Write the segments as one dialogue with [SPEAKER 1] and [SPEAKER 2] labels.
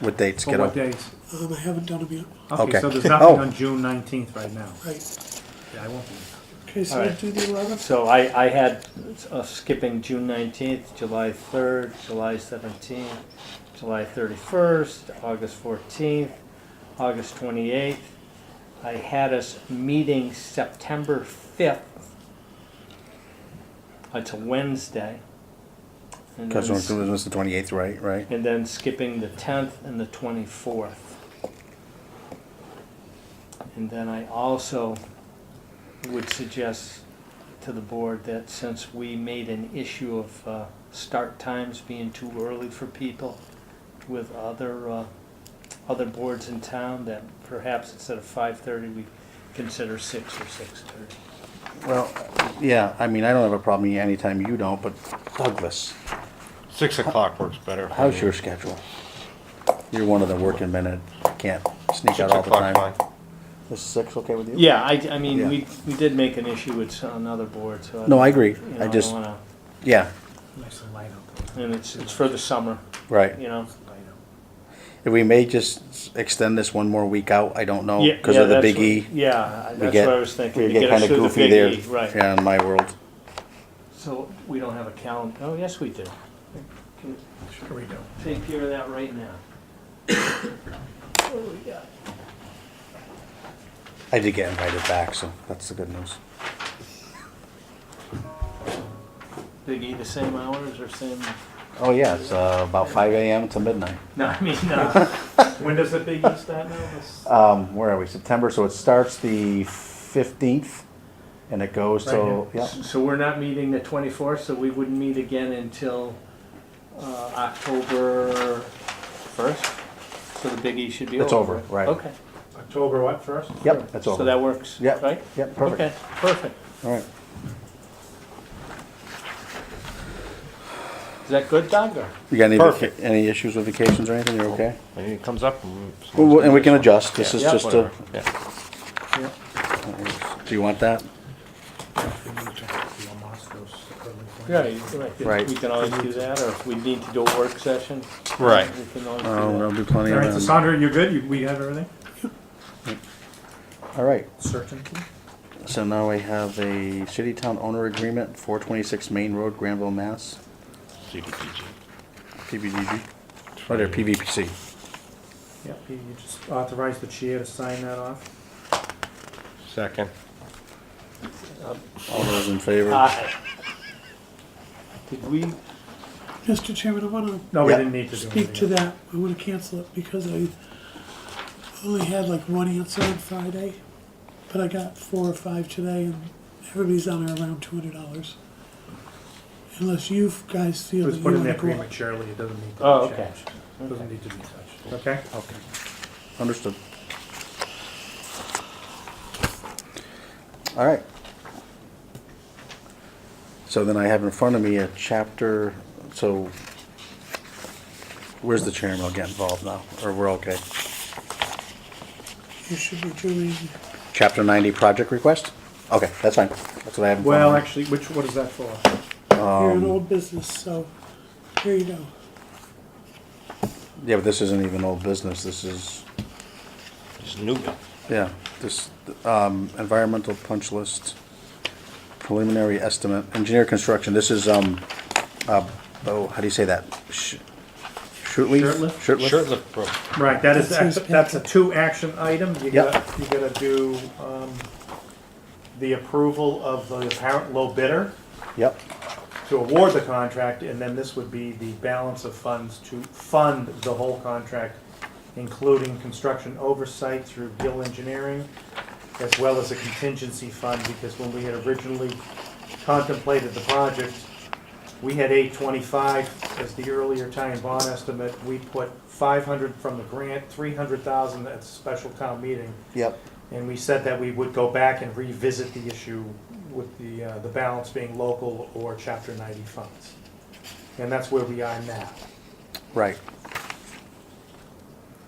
[SPEAKER 1] What dates
[SPEAKER 2] For
[SPEAKER 1] get
[SPEAKER 2] what
[SPEAKER 1] on?
[SPEAKER 2] days?
[SPEAKER 3] Um, I haven't done them yet.
[SPEAKER 2] Okay,
[SPEAKER 1] Okay.
[SPEAKER 2] so there's nothing
[SPEAKER 1] Oh.
[SPEAKER 2] on June nineteenth right now.
[SPEAKER 3] Right.
[SPEAKER 2] Yeah, I won't be.
[SPEAKER 3] Okay, so
[SPEAKER 4] All
[SPEAKER 3] we'll
[SPEAKER 4] right.
[SPEAKER 3] do the 11th.
[SPEAKER 4] So I, I had us skipping June nineteenth, July third, July seventeenth, July thirty-first, August fourteenth, August twenty-eighth. I had us meeting September fifth. It's a Wednesday. And
[SPEAKER 1] Because
[SPEAKER 4] then, s-
[SPEAKER 1] it was the 28th, right? Right?
[SPEAKER 4] and then skipping the tenth and the twenty-fourth. And then I also would suggest to the board that since we made an issue of uh, start times being too early for people with other, uh, other boards in town, that perhaps instead of five-thirty, we consider six or six-thirty.
[SPEAKER 1] Well, yeah, I mean, I don't have a problem anytime you don't, but Douglas,
[SPEAKER 5] Six o'clock works better. for
[SPEAKER 1] how's
[SPEAKER 5] me.
[SPEAKER 1] your schedule? You're one of the working men that can't sneak out
[SPEAKER 5] Six
[SPEAKER 1] all the time.
[SPEAKER 5] o'clock, fine.
[SPEAKER 1] Is six okay with you?
[SPEAKER 4] Yeah, I, I mean,
[SPEAKER 1] Yeah.
[SPEAKER 4] we, we did make an issue with another board, so.
[SPEAKER 1] No, I agree.
[SPEAKER 4] you know,
[SPEAKER 1] I
[SPEAKER 4] don't
[SPEAKER 1] just,
[SPEAKER 4] wanna-
[SPEAKER 1] yeah,
[SPEAKER 2] Nice and light out.
[SPEAKER 4] And it's, it's for the summer,
[SPEAKER 1] right.
[SPEAKER 4] you know?
[SPEAKER 2] Light out.
[SPEAKER 1] If we may just extend this one more week out, I don't know,
[SPEAKER 4] Yeah,
[SPEAKER 1] because
[SPEAKER 4] yeah,
[SPEAKER 1] Oh, of the
[SPEAKER 4] that's
[SPEAKER 1] Big
[SPEAKER 4] what-
[SPEAKER 1] E.
[SPEAKER 4] Yeah, I-
[SPEAKER 1] we
[SPEAKER 4] that's
[SPEAKER 1] get-
[SPEAKER 4] what I was thinking.
[SPEAKER 1] We
[SPEAKER 4] to
[SPEAKER 1] get
[SPEAKER 4] us
[SPEAKER 1] kind of
[SPEAKER 4] through the
[SPEAKER 1] goofy
[SPEAKER 4] Big
[SPEAKER 1] there.
[SPEAKER 4] E, Right.
[SPEAKER 1] Yeah, in my world.
[SPEAKER 4] So we don't have a calendar. Oh, yes, we do. Can
[SPEAKER 2] Sure we do.
[SPEAKER 4] Take care of that right now. Oh, yeah.
[SPEAKER 1] I did get invited back, so that's the good news.
[SPEAKER 4] Big E, the same hours or same?
[SPEAKER 1] Oh, yeah, it's uh, about five AM to midnight.
[SPEAKER 4] No, I mean, uh, when does the Big E start now? This-
[SPEAKER 1] um, where are we? September. So it starts the fifteenth, and it goes till
[SPEAKER 4] Right here.
[SPEAKER 1] yeah.
[SPEAKER 4] So we're not meeting the twenty-fourth, so we wouldn't meet again until, uh, October first? So the Big E should be over.
[SPEAKER 1] It's over, right.
[SPEAKER 4] Okay,
[SPEAKER 2] October what, first?
[SPEAKER 1] Yep, that's over.
[SPEAKER 4] so that works,
[SPEAKER 1] Yep,
[SPEAKER 4] right?
[SPEAKER 1] yep, perfect.
[SPEAKER 4] Okay, perfect.
[SPEAKER 1] All right.
[SPEAKER 4] Is that good, Doug, or?
[SPEAKER 1] You got any
[SPEAKER 5] Perfect.
[SPEAKER 1] vaca- any issues with vacations or anything? You're okay.
[SPEAKER 5] And it comes up. And
[SPEAKER 1] Well, well, and we can adjust. This is
[SPEAKER 4] Yeah,
[SPEAKER 1] just
[SPEAKER 5] Whatever.
[SPEAKER 1] a.
[SPEAKER 5] Yeah.
[SPEAKER 4] Yeah.
[SPEAKER 1] Do you want that?
[SPEAKER 2] We need to be on Moscow's early morning.
[SPEAKER 4] Yeah, you're right.
[SPEAKER 1] Right.
[SPEAKER 4] We can always do that, or if we need to do a work session.
[SPEAKER 5] Right.
[SPEAKER 4] We can always
[SPEAKER 1] Oh,
[SPEAKER 4] do
[SPEAKER 1] there'll be plenty
[SPEAKER 2] All right, so
[SPEAKER 1] of them.
[SPEAKER 2] Sandra, you're good? You- We have everything?
[SPEAKER 1] All right.
[SPEAKER 2] Certainty.
[SPEAKER 1] So now we have a city town owner agreement, 426 Main Road, Granville, Mass.
[SPEAKER 5] CDPG.
[SPEAKER 1] PBGG. Right there, PVPC.
[SPEAKER 2] Yep, you you just authorize the chair to sign that off.
[SPEAKER 5] Second.
[SPEAKER 1] All those in
[SPEAKER 4] that.
[SPEAKER 1] favor?
[SPEAKER 4] Aye. Uh, Did we,
[SPEAKER 3] Mr. Chairman, I want to
[SPEAKER 2] No, we
[SPEAKER 1] Yeah.
[SPEAKER 2] didn't need to do
[SPEAKER 3] speak to
[SPEAKER 2] anything.
[SPEAKER 3] that. I want to cancel it because I only had like one answer on Friday, but I got four or five today, and everybody's on there around $200. Unless you guys
[SPEAKER 2] It
[SPEAKER 3] feel
[SPEAKER 2] was
[SPEAKER 3] that
[SPEAKER 2] put
[SPEAKER 3] you want
[SPEAKER 2] in there
[SPEAKER 3] to go up.
[SPEAKER 2] prematurely, it doesn't need
[SPEAKER 4] Oh,
[SPEAKER 2] to be
[SPEAKER 4] okay.
[SPEAKER 2] changed. Doesn't need to be touched, okay?
[SPEAKER 1] Okay. Understood. All right. So then I have in front of me a chapter, so where's the chairman? I'll get involved now, or we're okay.
[SPEAKER 3] You should be doing
[SPEAKER 1] Chapter ninety project request? Okay, that's fine. That's what I have in front of
[SPEAKER 2] Well,
[SPEAKER 1] me.
[SPEAKER 2] actually, which, what is that for?
[SPEAKER 3] you're
[SPEAKER 4] Um,
[SPEAKER 3] an old business, so here you go.
[SPEAKER 1] Yeah, but this isn't even old business. This is,
[SPEAKER 5] It's new.
[SPEAKER 1] yeah, this, um, environmental punch list, preliminary estimate, engineer construction. This is, um, uh, oh, how do you say that? Sh- Shirtleaf?
[SPEAKER 2] Shirtlift?
[SPEAKER 1] Shirtlift?
[SPEAKER 5] Shirtlift pro.
[SPEAKER 2] Right, that is,
[SPEAKER 3] That's his
[SPEAKER 2] that's a two action item, you
[SPEAKER 1] Yep.
[SPEAKER 2] gotta, you gotta do, um, the approval of the apparent low bidder
[SPEAKER 1] Yep,
[SPEAKER 2] to award the contract, and then this would be the balance of funds to fund the whole contract, including construction oversight through Gill Engineering, as well as a contingency fund, because when we had originally contemplated the project, we had eight twenty-five as the earlier Italian bond estimate. We put five hundred from the grant, three hundred thousand at the special town meeting.
[SPEAKER 1] yep.
[SPEAKER 2] And we said that we would go back and revisit the issue with the, uh, the balance being local or chapter ninety funds. And that's where we are now.
[SPEAKER 1] Right,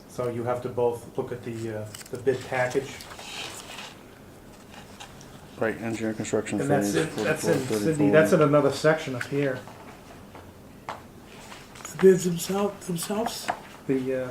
[SPEAKER 2] So you have to both look at the, uh, the bid package.
[SPEAKER 1] right, engineer construction.
[SPEAKER 2] And that's
[SPEAKER 1] phase,
[SPEAKER 2] in, that's in,
[SPEAKER 1] 44,
[SPEAKER 2] Sydney, that's
[SPEAKER 1] 34.
[SPEAKER 2] in another section up here,
[SPEAKER 3] The bids themselves, themselves.
[SPEAKER 2] the, uh,